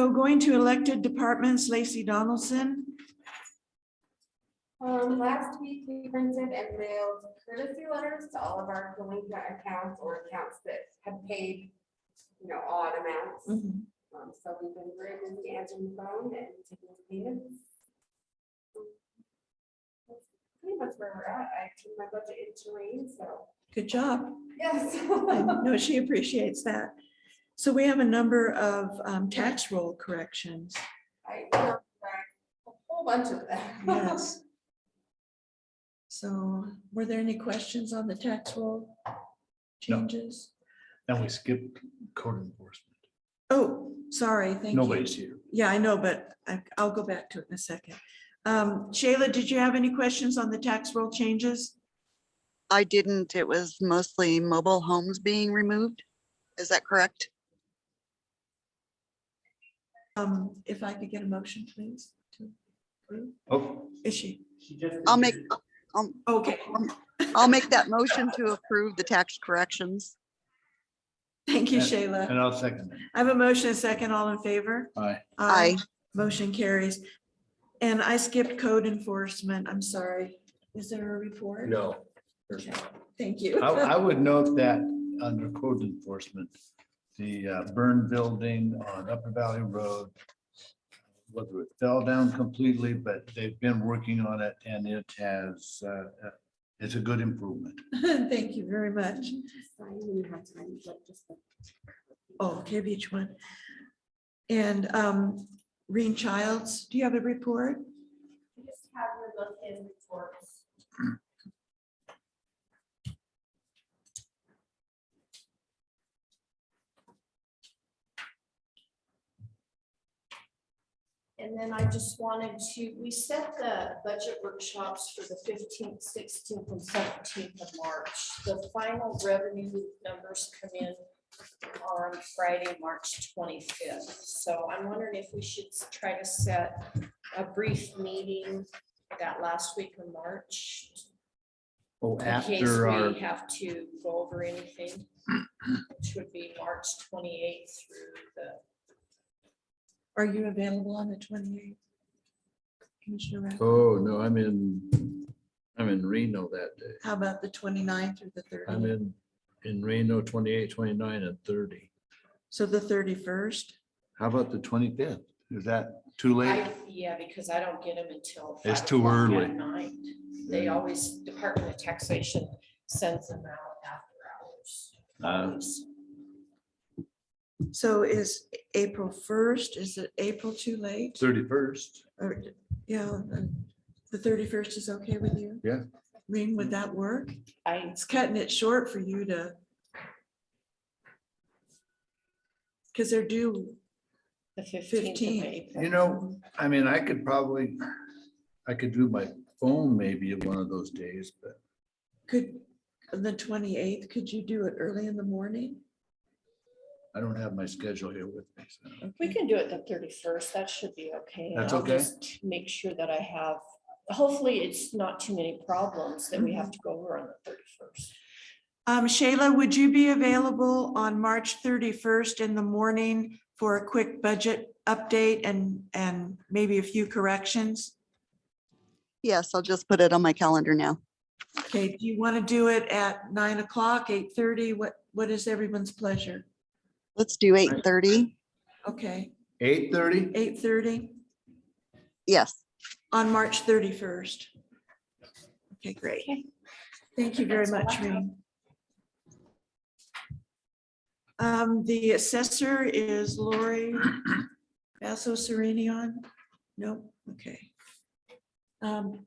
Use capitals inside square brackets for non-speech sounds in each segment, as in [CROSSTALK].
So going to elected departments, Lacey Donaldson. Um, last week, we printed and mailed courtesy letters to all of our delinquent accounts or accounts that have paid, you know, odd amounts. Um, so we've been very busy answering the phone and taking payments. That's Pretty much where we're at. I turned my budget into rain, so, Good job. yes. I know she appreciates that. So we have a number of um, tax roll corrections. [LAUGHS] I know, right? A whole bunch of them. [LAUGHS] Yes. So were there any questions on the tax roll No. changes? And we skipped code enforcement. Oh, sorry, thank you. Nobody's here. Yeah, I know, but I- I'll go back to it in a second. Um, Shayla, did you have any questions on the tax roll changes? I didn't. It was mostly mobile homes being removed. Is that correct? Um, If I could get a motion, please. to approve. Oh, Is she? I'll make, Okay, I'll make that motion to approve the tax corrections. thank you, Shayla. and I'll second it. I have a motion, a second, all in favor? Aye. Aye. Motion carries. And I skipped code enforcement. I'm sorry. Is there a report? No. Okay, Thank you. I, I would note that under code enforcement, the uh, burned building on Upper Valley Road, whether it fell down completely, but they've been working on it and it has, uh, uh, it's a good improvement. [LAUGHS] Thank you very much. Sign when you have time, but just the- Oh, okay, each one. And um, Reen Childs, do you have a report? We just have your look in reports. And then I just wanted to, we set the budget workshops for the fifteenth, sixteenth, and seventeenth of March. The final revenue numbers come in on Friday, March twenty-fifth. So I'm wondering if we should try to set a brief meeting that last week of March. Oh, In case after our, we have to go over anything, which would be March twenty-eighth through the Are you available on the twenty-eighth? Commissioner, Rath? Oh, no, I'm in, I'm in Reno that day. how about the 29th or the I'm thirtieth? in, in Reno 28, 29, and thirty. So the thirty-first? how about the twenty-fifth? Is that too late? I, yeah, because I don't get them until. It's five too o'clock at early. Night. They always, Department of Taxation sends them out after Uh, hours. So is April first, is it April too late? Thirty-first. Or, yeah, um, the thirty-first is okay with you? Yeah. Reen, would that work? I, It's cutting it short for you to. Because they're due, the fifteenth of 15th. April. You know, I mean, I could probably, I could do my phone maybe one of those days, but could, the twenty-eighth, could you do it early in the morning? I don't have my schedule here with me. so. We can do it the thirty-first. That should be okay. and That's I'll okay. just Make sure that I have, hopefully it's not too many problems that we have to go over on the thirty-first. Um, Shayla, would you be available on March thirty-first in the morning for a quick budget update and, and maybe a few corrections? Yes, I'll just put it on my calendar now. Okay, do you want to do it at nine o'clock, eight thirty? What, what is everyone's pleasure? Let's do eight thirty. Okay, Eight thirty? eight thirty Yes, on March thirty-first. Okay, great. Okay. Thank you very That's all I much, have. Reen. Um, the assessor is Lori Basso Serenion? No, okay. Um,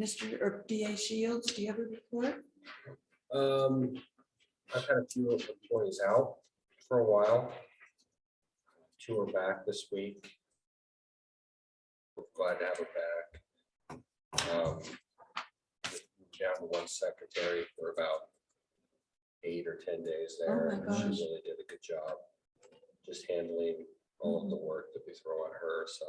Mr. or DA Shields, do you have a report? Um, I've had a few employees out for a while. Two are back this week. We're Glad to have her back. Um, we have one secretary for about eight or ten days there. Oh my and She gosh. really did a good job, just handling all of the work that we throw at her, so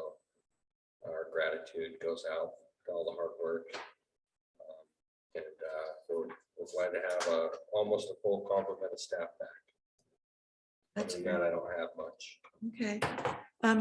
our gratitude goes out to all the hard work. Um, And uh, we're we're glad to have a, almost a full complement of staff back. That's Other than that, I don't have much. okay.